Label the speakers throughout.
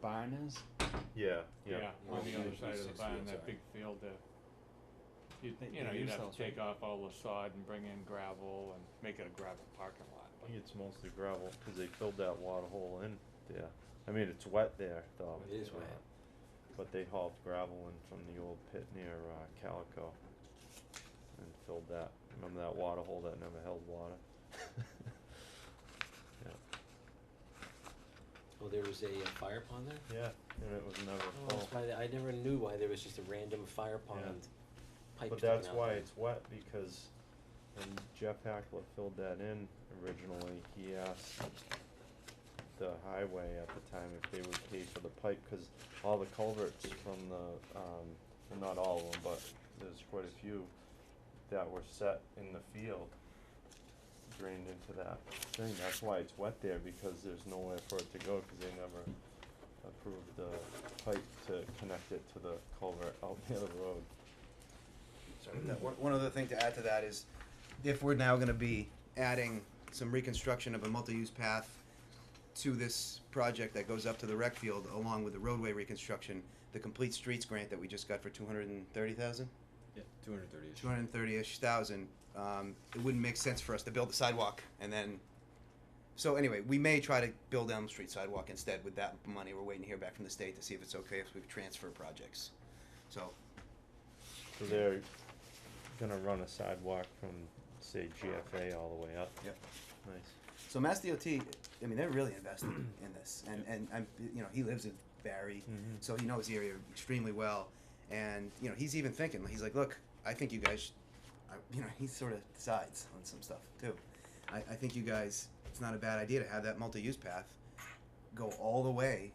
Speaker 1: barn is?
Speaker 2: Yeah, yeah.
Speaker 3: Yeah,
Speaker 1: Yeah,
Speaker 3: on the other
Speaker 1: three-
Speaker 3: side of the
Speaker 1: six
Speaker 3: barn,
Speaker 1: fields,
Speaker 3: that
Speaker 1: sorry.
Speaker 3: big field there. You'd,
Speaker 1: They-
Speaker 3: you know,
Speaker 1: they
Speaker 3: you'd
Speaker 1: use
Speaker 3: have
Speaker 1: those,
Speaker 3: to
Speaker 1: right?
Speaker 3: take off all the sod and bring in gravel and make it a gravel parking lot,
Speaker 2: I
Speaker 3: but
Speaker 2: think it's mostly gravel, cause they filled that water hole in there. I mean, it's wet there, though.
Speaker 1: It is
Speaker 2: uh,
Speaker 1: wet.
Speaker 2: But they hauled gravel in from the old pit near, uh, Calico. And filled that, remember that water hole that never held water? Yeah,
Speaker 1: Oh, there was a uh, fire pond there?
Speaker 2: yeah, and it was never
Speaker 1: Oh,
Speaker 2: full.
Speaker 1: that's why, they- I never knew why there was just a random fire pond pipe
Speaker 2: But
Speaker 1: sticking
Speaker 2: that's
Speaker 1: out
Speaker 2: why
Speaker 1: there.
Speaker 2: it's wet, because when Jeff Hackler filled that in originally, he asked the highway at the time if they would pay for the pipe, cause all the culverts from the, um, well, not all of them, but there's quite a few that were set in the field drained into that thing, that's why it's wet there, because there's nowhere for it to go, cause they never approved the pipe to connect it to the culvert out near the road.
Speaker 4: Sorry, that, one, one other thing to add to that is, if we're now gonna be adding some reconstruction of a multi-use path to this project that goes up to the rec field along with the roadway reconstruction, the complete streets grant that we just got for two hundred and thirty thousand?
Speaker 5: Yeah, two hundred thirty.
Speaker 4: Two hundred and thirty-ish thousand, um, it wouldn't make sense for us to build the sidewalk and then, so anyway, we may try to build Elm Street sidewalk instead with that money, we're waiting to hear back from the state to see if it's okay if we transfer projects. So,
Speaker 2: So they're gonna run a sidewalk from, say, GFA all the way up.
Speaker 4: Yep.
Speaker 2: Nice.
Speaker 4: So Mass DOT, I mean, they're really invested in this, and and I'm, you know, he lives in Barry,
Speaker 2: Mhm.
Speaker 4: so he knows the area extremely well, and you know, he's even thinking, he's like, look, I think you guys, sh- I, you know, he sort of decides on some stuff too. I, I think you guys, it's not a bad idea to have that multi-use path go all the way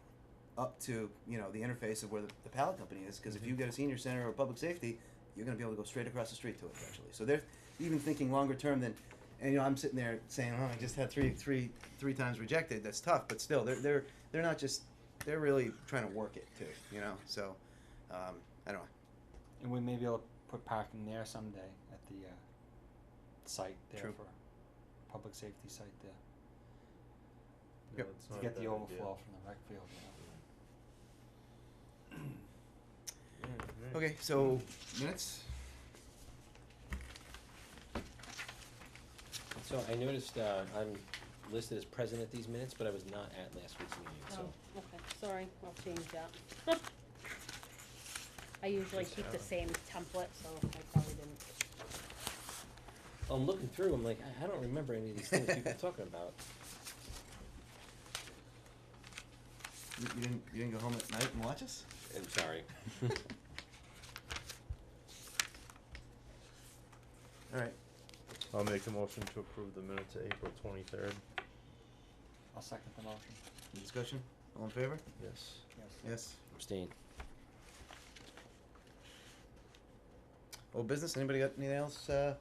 Speaker 4: up to you know the interface of where the, the pallet company is, because if you get a senior center or public safety, you're going to be able to go straight across the street to it eventually. So they're even thinking longer term than, and you know, I'm sitting there saying, oh, I just had three, three, three times rejected. That's tough, but still, they're they're they're not just, they're really trying to work it too, you know. So, um, I don't know.
Speaker 1: And we may be able to put parking there someday at the uh, site there
Speaker 4: True.
Speaker 1: for public safety site there
Speaker 2: No,
Speaker 4: Yep.
Speaker 2: it's
Speaker 1: to
Speaker 2: not a
Speaker 1: get the
Speaker 2: bad idea.
Speaker 1: overflow from the rec field. You
Speaker 2: Alright,
Speaker 4: Okay, so minutes.
Speaker 5: So I noticed, uh, I'm listed as present at these minutes, but I was not at last week's meeting, so.
Speaker 6: Oh, okay, sorry, I'll change that. I usually
Speaker 2: Just
Speaker 6: keep the
Speaker 2: have 'em.
Speaker 6: same template, so I probably didn't.
Speaker 5: I'm looking through, I'm like, I, I don't remember any of these things people are talking about.
Speaker 4: You, you didn't you didn't go home at night and watch us?
Speaker 5: I'm sorry.
Speaker 4: All right.
Speaker 2: I'll make a motion to approve the minutes of April twenty-third.
Speaker 1: know. I'll second the motion.
Speaker 4: Any discussion. All in favor?
Speaker 2: Yes.
Speaker 1: Yes.
Speaker 4: Yes.
Speaker 5: Abstain.
Speaker 4: Old business. Anybody got anything else uh,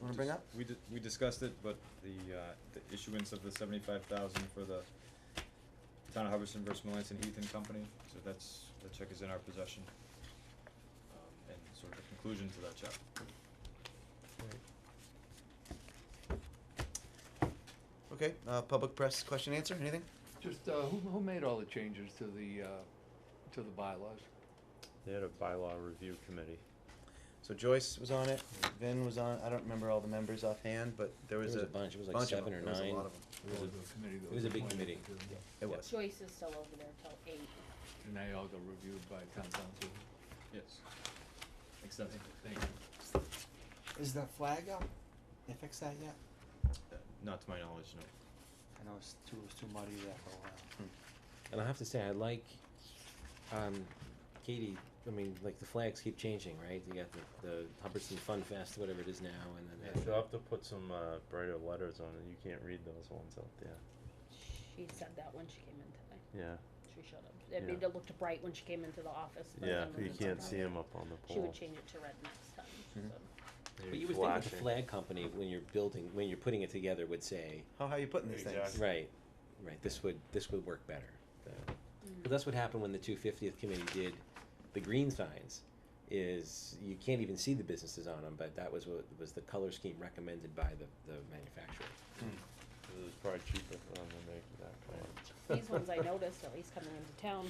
Speaker 4: want to bring up?
Speaker 7: We di- we discussed it, but the uh the issuance of the seventy-five thousand for the town of Hubbardston versus Melanson Heath and Company, so that's, that check is in our possession. Um, and sort of the conclusion to that check.
Speaker 4: Okay. Uh, public press question answer. Anything?
Speaker 3: Just, uh, who, who made all the changes to the, uh, to the bylaws?
Speaker 2: They had a bylaw review committee.
Speaker 4: So Joyce was on it. Vin was on. I don't remember all the members offhand, but
Speaker 5: There
Speaker 4: there was,
Speaker 5: was a bunch, it was like
Speaker 4: bunch of
Speaker 5: seven
Speaker 4: them.
Speaker 5: or
Speaker 4: There was a
Speaker 5: nine.
Speaker 4: lot of them.
Speaker 5: It was a-
Speaker 3: committee
Speaker 5: it was a big committee.
Speaker 4: It
Speaker 5: Yeah.
Speaker 4: was.
Speaker 6: Joyce is still over there till eight.
Speaker 3: And they all got reviewed by town council.
Speaker 7: Yes. Extensive.
Speaker 3: Thank you.
Speaker 1: Is the flag up? They fixed that yet?
Speaker 7: Uh, Not to my knowledge, no.
Speaker 1: I know it's too, it was too muddy there for a while.
Speaker 5: And I have to say, I like, um, Katie, I mean, like, the flags keep changing, right? You got the, the Hubbardston Fun Fest, whatever it is now, and then. they have
Speaker 2: You'll
Speaker 5: the-
Speaker 2: have to put some, uh, brighter letters on it, you can't read those ones out there.
Speaker 6: She said that when she came in today.
Speaker 2: Yeah,
Speaker 6: She showed up. It
Speaker 2: Yeah.
Speaker 6: made it looked bright when she came into the office. but
Speaker 2: yeah,
Speaker 6: then when
Speaker 2: you
Speaker 6: it's
Speaker 2: can't
Speaker 6: dark,
Speaker 2: see Mm-hmm. them up on the
Speaker 6: She
Speaker 2: pole.
Speaker 6: would change it to red next time, she
Speaker 4: Mhm.
Speaker 6: said.
Speaker 5: But you would think the flag company, when you're building, when you're putting it together, would say,
Speaker 4: How high are you putting these
Speaker 2: Exactly.
Speaker 4: things?
Speaker 5: right, right, this would, this would work better. But that's what happened when the two fiftieth committee did the green signs, is you can't even see the businesses on them, but that was what, was the color scheme recommended by the, the manufacturer.
Speaker 2: It was probably cheaper for them to make that color.
Speaker 6: These ones I noticed, at least coming into town,